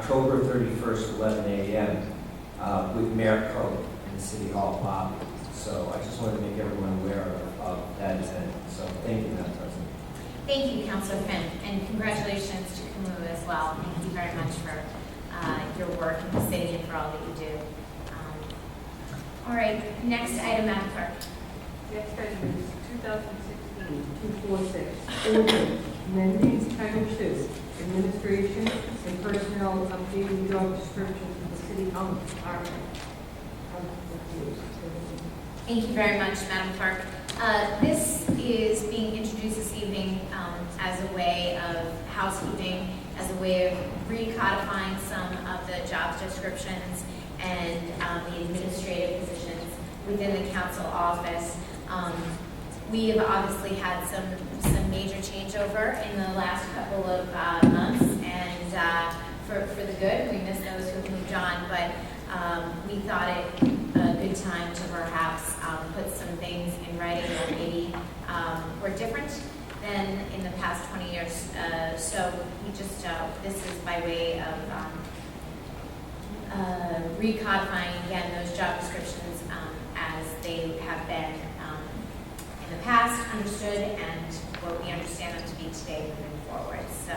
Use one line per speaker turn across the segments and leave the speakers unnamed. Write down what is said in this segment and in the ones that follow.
October 31st, 11 a.m. uh, with Mayor Cope in the City Hall lobby. So I just wanted to make everyone aware of- of that event. So thank you, Madam President.
Thank you, Counselor Finn, and congratulations to Kamu as well. Thank you very much for uh, your work in the city and for all that you do. Um, All right, next item, Madam Clerk.
Next item is 2016-246, ordinance amending Title II, Administration and Personnel Updating Job Description for the City Hall Department.
Thank you very much, Madam Clerk. Uh, This is being introduced this evening um, as a way of housekeeping, as a way of recodifying some of the job descriptions and um, the administrative positions within the council office. Um, We have obviously had some, some major changeover in the last couple of uh, months, and uh, for, for the good, we miss those who have moved on, but um, we thought it a good time to perhaps um, put some things in writing that maybe um, were different than in the past 20 years. Uh, So we just, uh, this is by way of um, uh, recodifying again those job descriptions um, as they have been um, in the past understood and what we understand them to be today moving forward, so.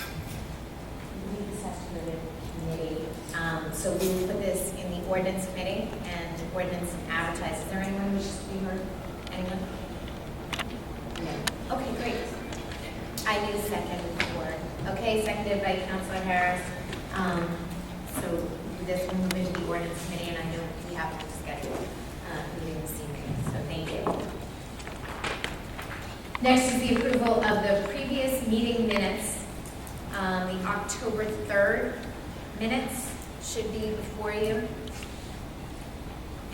I believe this has to go to committee, Um, so we will put this in the ordinance committee and ordinance and advertise. Is there anyone who wishes to be heard? Anyone? No. Okay, great. I need a second for, okay, seconded by Counselor Harris. Um, so this will move into the ordinance committee, and I know we have to schedule, uh, meeting this evening, so thank you. Next is the approval of the previous meeting minutes. Um, the October third minutes should be before you.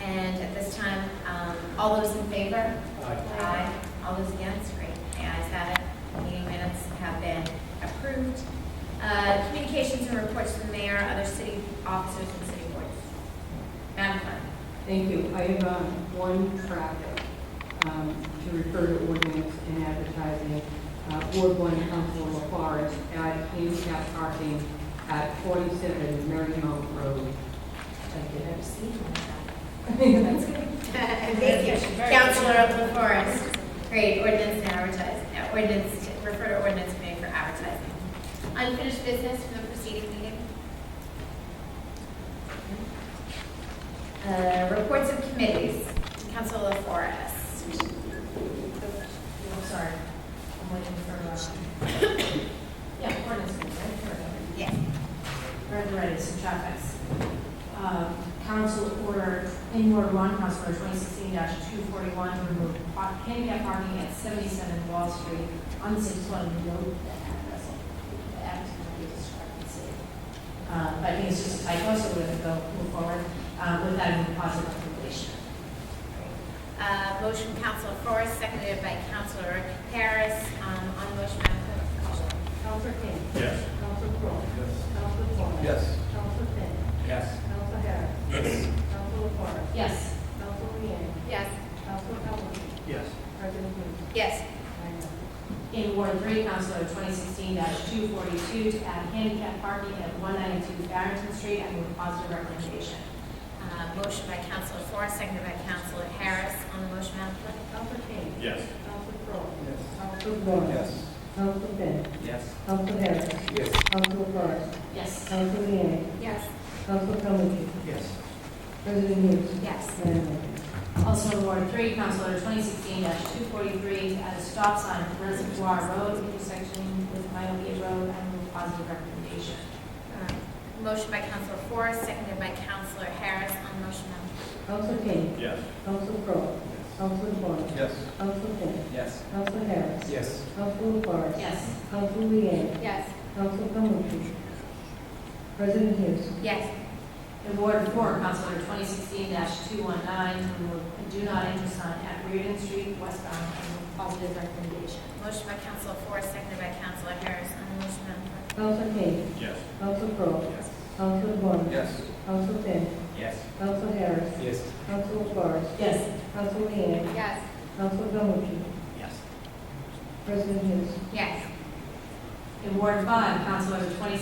And at this time, um, all those in favor? Aye. All those against, great. The ayes have it. Meeting minutes have been approved. Uh, Communications and reports to the mayor, other city officers and city boards. Madam Clerk.
Thank you. I have um, one traffic um, to refer to ordinance and advertising. Uh, Ward one, Council LaForest, add handicap parking at 47 Marymount Road. Thank you.
That's good. Thank you. Counselor of the Forest. Great, ordinance and advertising, uh, ordinance, to- refer to ordinance committee for advertising. Unfinished business from the preceding meeting? Uh, Reports of committees, Council of Forest. I'm sorry, I'm waiting for, uh, yeah, ordinance, right? Yeah.
Red Red is in traffic. Uh, Council order in Ward One, House Order twenty sixteen two forty-one, to remove par- handicap parking at seventy-seven Wall Street, unsafe one, note that address. The act will be discrepancy. Uh, but I think it's just a typo, so we're gonna go move forward, uh, with that in positive recommendation.
Uh, Motion Counselor Forrest, seconded by Counselor Harris. Um, On the motion, Madam Clerk, call the roll.
Council King.
Yes.
Council Crowe. Council Vaughn.
Yes.
Council Finn.
Yes.
Council Harris. Council LaFors.
Yes.
Council Leeang.
Yes.
Council Calhoun.
Yes.
President Hughes.
Yes.
Nine ayes.
In Ward Three, Council Order twenty sixteen two forty-two, to add handicap parking at one ninety-two Barrington Street, I move positive recommendation.
Uh, Motion by Counselor Forrest, seconded by Counselor Harris. On the motion, Madam Clerk.
Council King.
Yes.
Council Crowe.
Yes.
Council Vaughn. Council Finn.
Yes.
Council Harris.
Yes.
Council LaFors.
Yes.
Council Leeang.
Yes.
Council Calhoun.
Yes.
President Hughes.
Yes.
Nine ayes.
Also in Ward Three, Council Order twenty sixteen two forty-three, at a stop sign at Reservoir Road intersection with Myopia Road, I move positive recommendation.
Uh, Motion by Counselor Forrest, seconded by Counselor Harris. On the motion, Madam Clerk.
Council King.
Yes.
Council Crowe. Council Vaughn.
Yes.
Council Finn.
Yes.
Council Harris.
Yes.
Council LaFors.
Yes.
Council Leeang.
Yes.
Council Calhoun. President Hughes.
Yes.
In Ward Four, Council Order twenty sixteen two one nine, to remove a do not enter sign at Reardon Street westbound, I move positive recommendation.
Motion by Counselor Forrest, seconded by Counselor Harris. On the motion, Madam Clerk.
Council King.
Yes.
Council Crowe.
Yes.
Council Vaughn.
Yes.
Council Finn.
Yes.
Council Harris.
Yes.
Council LaFars.
Yes.
Council Leeang.
Yes.
Council Calhoun.
Yes.
President Hughes.
Yes.
In Ward Five, Council Order twenty